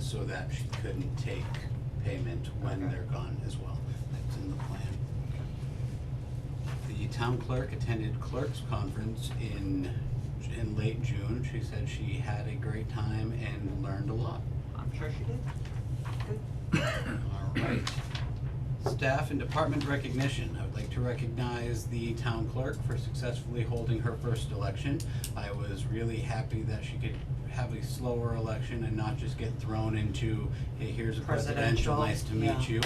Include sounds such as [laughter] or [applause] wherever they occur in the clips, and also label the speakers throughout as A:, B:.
A: so that she couldn't take payment when
B: Okay.
A: they're gone as well. That's in the plan. The town clerk attended clerk's conference in, in late June. She said she had a great time and learned a lot.
B: I'm sure she did. Good.
A: All right. Staff and department recognition. I would like to recognize the town clerk for successfully holding her first election. I was really happy that she could have a slower election and not just get thrown into, hey, here's a presidential,
B: Presidential,
A: nice to meet
B: yeah.
A: you.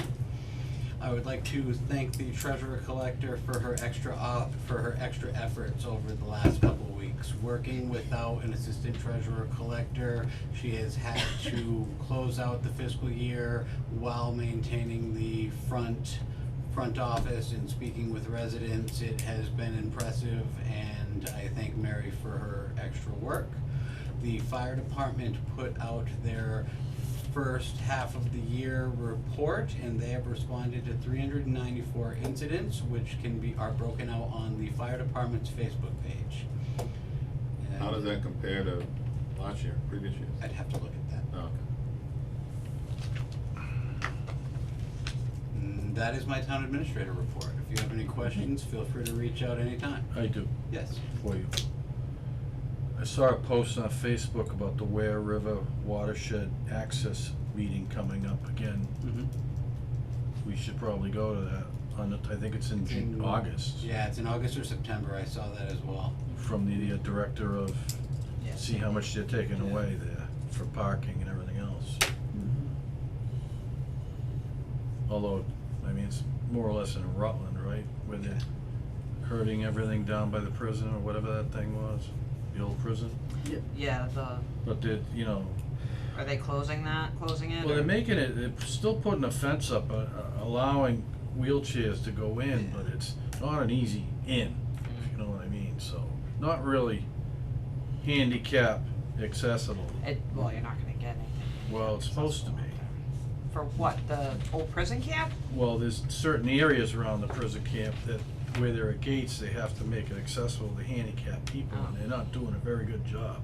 A: I would like to thank the treasurer collector for her extra op, for her extra efforts over the last couple weeks. Working without an assistant treasurer collector, she has had to close out the fiscal year while maintaining the front, front office and speaking with residents. It has been impressive and I thank Mary for her extra work. The fire department put out their first half of the year report, and they have responded to three hundred and ninety-four incidents, which can be, are broken out on the fire department's Facebook page. And
C: How does that compare to last year, previous years?
A: I'd have to look at that.
C: Oh, Okay.
A: Mm, That is my town administrator report. If you have any questions, feel free to reach out anytime.
D: I do,
A: Yes.
D: for you. I saw a post on Facebook about the Ware River watershed access meeting coming up again.
A: Mhm.
D: We should probably go to that on the, I think it's in Ju-
A: In-
D: August.
A: Yeah, it's in August or September. I saw that as well.
D: From the uh, director of,
B: Yes.
D: see how much they're taking
A: Yeah.
D: away there for parking and everything else. Although, I mean, it's more or less in Rutland, right? Where they're herding everything down by the prison or whatever that thing was, the old prison.
B: Yeah, the,
D: But they're, you know,
B: are they closing that, closing it?
D: Well,
B: or-
D: they're making it, they're still putting a fence up, uh, allowing wheelchairs to go in, but it's not an easy in,
B: Mm.
D: if you know what I mean, so, not really handicap accessible.
B: It, well, you're not gonna get anything.
D: Well, it's supposed to be.
B: For what, the old prison camp?
D: Well, there's certain areas around the prison camp that, where there are gates, they have to make it accessible to handicapped people, and they're not doing a very good job.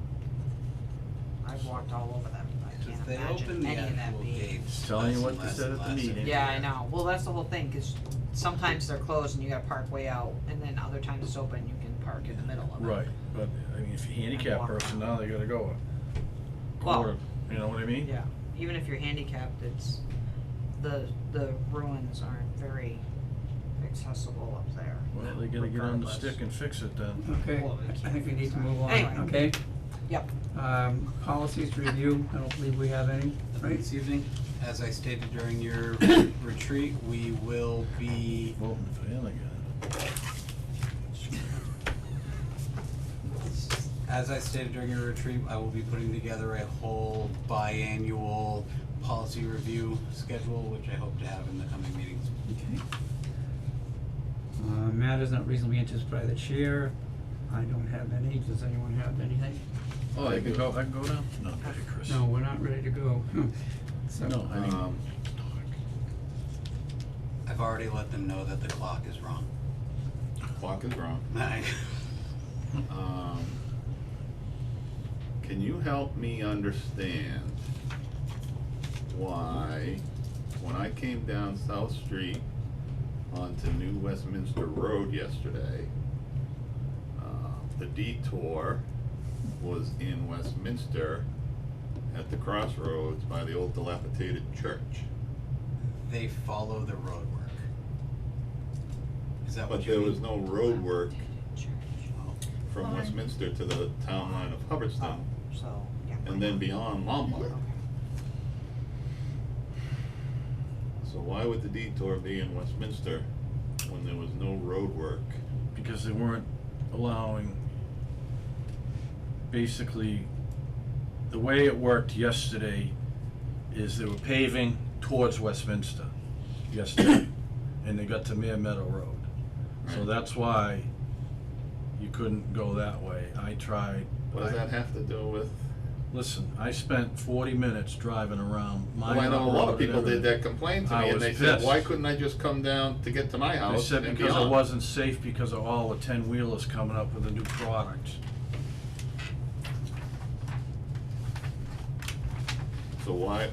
B: I've walked all over them, I
A: If
B: can't
A: they open
B: imagine
A: the
B: any of that
A: actual
B: being.
A: gates.
D: Telling you
A: that's
D: what
A: the
D: they
A: last-
D: said at the
A: last
D: meeting.
A: thing.
B: Yeah, I know, well, that's the whole thing, cause sometimes they're closed and you gotta park way out, and then other times it's open, you can park in the middle of it.
D: Right, but, I mean, if you're a handicapped person, now they gotta go a
B: Well-
D: quarter, you know what I mean?
B: Yeah, even if you're handicapped, it's, the, the ruins aren't very accessible up there.
D: Well, they gotta get on the
B: regardless.
D: stick and fix it then.
E: Okay,
B: Well, we
E: I think we need to move on,
B: Anyway.
E: okay?
B: Yep.
E: Um, policies review, I don't believe we have any, right?
A: This evening, as I stated during your retreat, we will be
D: Voting for him again.
A: As I stated during your retreat, I will be putting together a whole biannual policy review schedule, which I hope to have in the coming meetings.
E: Okay. Uh, matters not reasonably anticipated by the chair, I don't have any, does anyone have anything?
D: Oh, I can go, I can go now? No, okay, Chris.
E: No, we're not ready to go, so.
D: No, I think.
C: Um,
A: I've already let them know that the clock is wrong. [laughs]
C: Clock is wrong.
A: I-
C: Um, can you help me understand why, when I came down South Street onto New Westminster Road yesterday, uh, the detour was in Westminster at the crossroads by the old dilapidated church.
A: They follow the road work. Is that what
C: But
A: you
C: there
A: mean?
C: was no road work
B: Church.
A: Oh,
C: from
B: Fine.
C: Westminster to the town line of
B: Oh,
C: Hubbardston,
B: so, yeah.
C: and then beyond Lombard.
B: Okay.
C: So why would the detour be in Westminster when there was no road work?
D: Because they weren't allowing, basically, the way it worked yesterday is they were paving towards Westminster yesterday, and they got to Mere Meadow Road. So
C: Right.
D: that's why you couldn't go that way. I tried.
C: What does
D: I-
C: that have to do with?
D: Listen, I spent forty minutes driving around my
C: Well, I know a lot of people did that complained to
D: I
C: me and
D: was
C: they said,
D: pissed.
C: why couldn't I just come down to get to my
D: They
C: house
D: said
C: and
D: because it
C: beyond?
D: wasn't safe because of all the ten wheelers coming up with a new product.
C: So why,